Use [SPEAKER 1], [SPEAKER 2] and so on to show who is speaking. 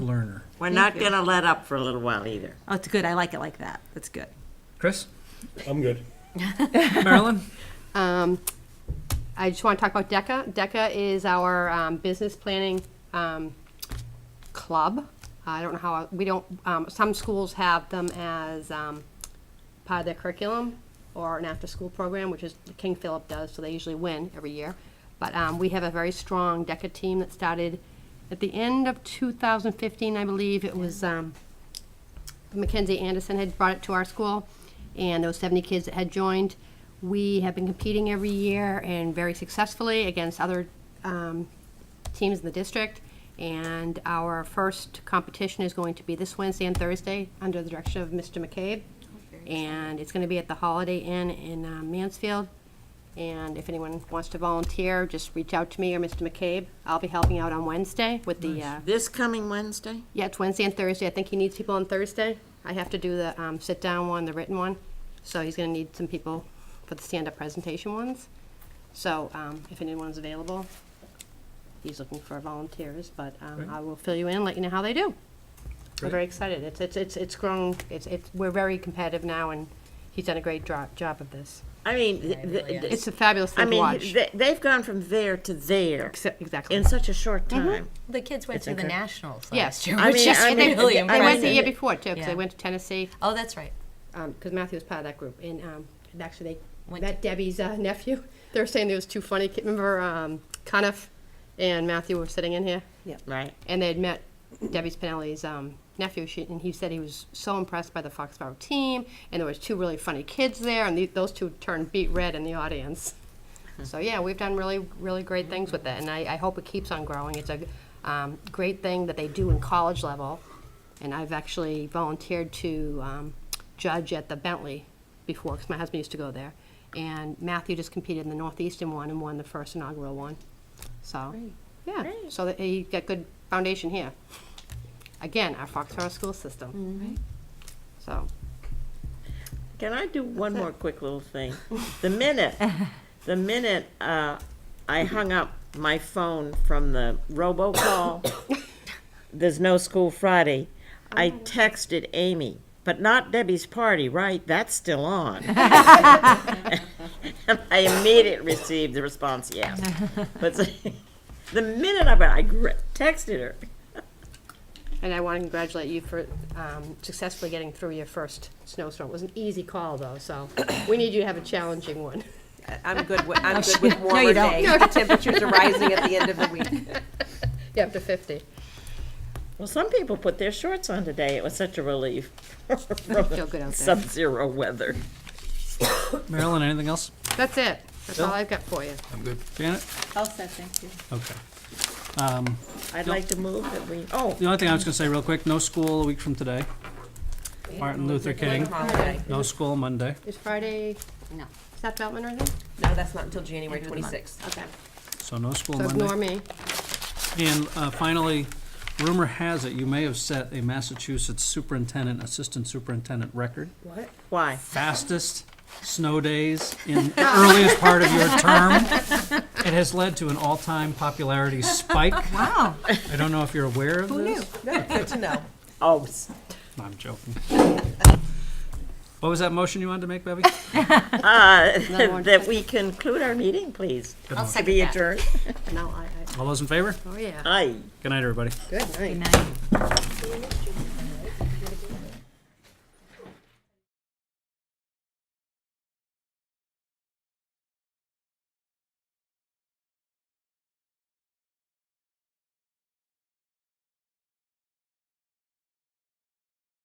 [SPEAKER 1] learner.
[SPEAKER 2] We're not
[SPEAKER 3] you.
[SPEAKER 2] going to let up for a little while either.
[SPEAKER 3] Oh, it's good. I like it like that. That's good.
[SPEAKER 1] Chris?
[SPEAKER 4] I'm good.
[SPEAKER 1] Marilyn?
[SPEAKER 5] Um, I just want to talk about DECA. DECA is our um, business planning um, club. I don't know how, we don't, um, some schools have them as um, part of their curriculum or an after-school program, which is King Philip does, so they usually win every year. But um, we have a very strong DECA team that started at the end of 2015, I believe. It was um, Mackenzie Anderson had brought it to our school, and there were 70 kids that had joined. We have been competing every year and very successfully against other um, teams in the district. And our first competition is going to be this Wednesday and Thursday under the direction of Mr. McCabe. And it's going to be at the Holiday Inn in uh, Mansfield. And if anyone wants to volunteer, just reach out to me or Mr. McCabe. I'll be helping out on Wednesday with the uh,
[SPEAKER 2] This coming Wednesday?
[SPEAKER 5] yeah, it's Wednesday and Thursday. I think he needs people on Thursday. I have to do the um, sit-down one, the written one. So he's gonna need some people for the stand-up presentation ones. So um, if anyone's available, he's looking for volunteers, but um, I will fill you in, let you know how they do. I'm very excited. It's, it's, it's it's grown, it's, it's, we're very competitive now, and he's done a great dro- job of this.
[SPEAKER 2] I mean, th- th- th-
[SPEAKER 5] It's a fabulous
[SPEAKER 2] I
[SPEAKER 5] thing to
[SPEAKER 2] mean,
[SPEAKER 5] watch.
[SPEAKER 2] they, they've gone from there to there
[SPEAKER 5] Exa- Exactly.
[SPEAKER 2] in such a short time.
[SPEAKER 6] The kids went to the
[SPEAKER 2] incredible.
[SPEAKER 6] nationals last
[SPEAKER 5] Yes.
[SPEAKER 6] year,
[SPEAKER 5] I
[SPEAKER 6] which
[SPEAKER 2] mean-
[SPEAKER 6] is
[SPEAKER 2] I mean,
[SPEAKER 5] And
[SPEAKER 6] really
[SPEAKER 5] They they went
[SPEAKER 6] impressive.
[SPEAKER 5] the year before, too, because they
[SPEAKER 6] Yeah.
[SPEAKER 5] went to Tennessee.
[SPEAKER 6] Oh, that's right.
[SPEAKER 5] because um, Matthew was part of that group, and um, and actually they
[SPEAKER 6] Went
[SPEAKER 5] met Debbie's uh, nephew. They were saying there was two funny. ki- Remember, um, Conniff and Matthew were sitting in here,
[SPEAKER 2] Right.
[SPEAKER 5] and they had met Debbie Spinelli's um, nephew, she, and he said he was so impressed by the Foxborough team, and there was two really funny kids there, and the, those two turned beat red in the audience. So yeah, we've done really, really great things with it, and I, I hope it keeps on growing. It's a um, great thing that they do in college level, and I've actually volunteered to um, judge at the Bentley before, because my husband used to go there. And Matthew just competed in the Northeastern one and won the first inaugural one. So, yeah, so that he got good foundation here. Again, our Foxborough school system. So,
[SPEAKER 2] Can I do one more quick little thing? The minute, the minute uh, I hung up my phone from the robocall, there's no school Friday, I texted Amy, but not Debbie's party, right? That's still on. And I immediately received the response, yes. But the minute I, I gr- texted her,
[SPEAKER 5] and I want to congratulate you for um, successfully getting through your first snowstorm. It was an easy call, though, so we need you to have a challenging one.
[SPEAKER 7] I'm good with, I'm good with warmer
[SPEAKER 3] don't.
[SPEAKER 7] days. The Temperatures are rising at the end of the week.
[SPEAKER 5] Yeah, up to 50.
[SPEAKER 2] well, some people put their shorts on today. It was such a relief.
[SPEAKER 5] Feel good out there.
[SPEAKER 2] Sub-zero weather.
[SPEAKER 1] Marilyn, anything else?
[SPEAKER 5] That's it. That's all I've got for you.
[SPEAKER 1] Janet?
[SPEAKER 8] All set, thank you.
[SPEAKER 1] Okay.
[SPEAKER 2] I'd like to move that we, oh,
[SPEAKER 1] The only thing I was gonna say real quick, no school a week from today. Martin Luther King,
[SPEAKER 7] Holiday.
[SPEAKER 1] no school Monday.
[SPEAKER 5] Is Friday,
[SPEAKER 8] No.
[SPEAKER 5] is that Beltman or anything?
[SPEAKER 7] No, that's not until January twenty-sixth.
[SPEAKER 5] Okay.
[SPEAKER 1] So no school
[SPEAKER 5] So ignore
[SPEAKER 1] Monday.
[SPEAKER 5] me.
[SPEAKER 1] And uh, finally, rumor has it you may have set a Massachusetts superintendent, assistant superintendent record.
[SPEAKER 2] why?
[SPEAKER 1] Fastest snow days in the earliest part of your term. It has led to an all-time popularity spike.
[SPEAKER 3] Wow.
[SPEAKER 1] I don't know if you're aware of this.
[SPEAKER 7] No, good to know.
[SPEAKER 2] Oh,
[SPEAKER 1] No, I'm joking. What was that motion you wanted to make, Bevy?
[SPEAKER 5] one.
[SPEAKER 2] that we conclude our meeting, please.
[SPEAKER 6] I'll
[SPEAKER 2] To
[SPEAKER 6] second
[SPEAKER 2] be
[SPEAKER 6] that.
[SPEAKER 2] adjourned.
[SPEAKER 5] No, I, I,
[SPEAKER 1] All those in favor?
[SPEAKER 5] oh, yeah.
[SPEAKER 2] Aye.
[SPEAKER 1] Good night, everybody.
[SPEAKER 5] Good night.
[SPEAKER 6] Good night.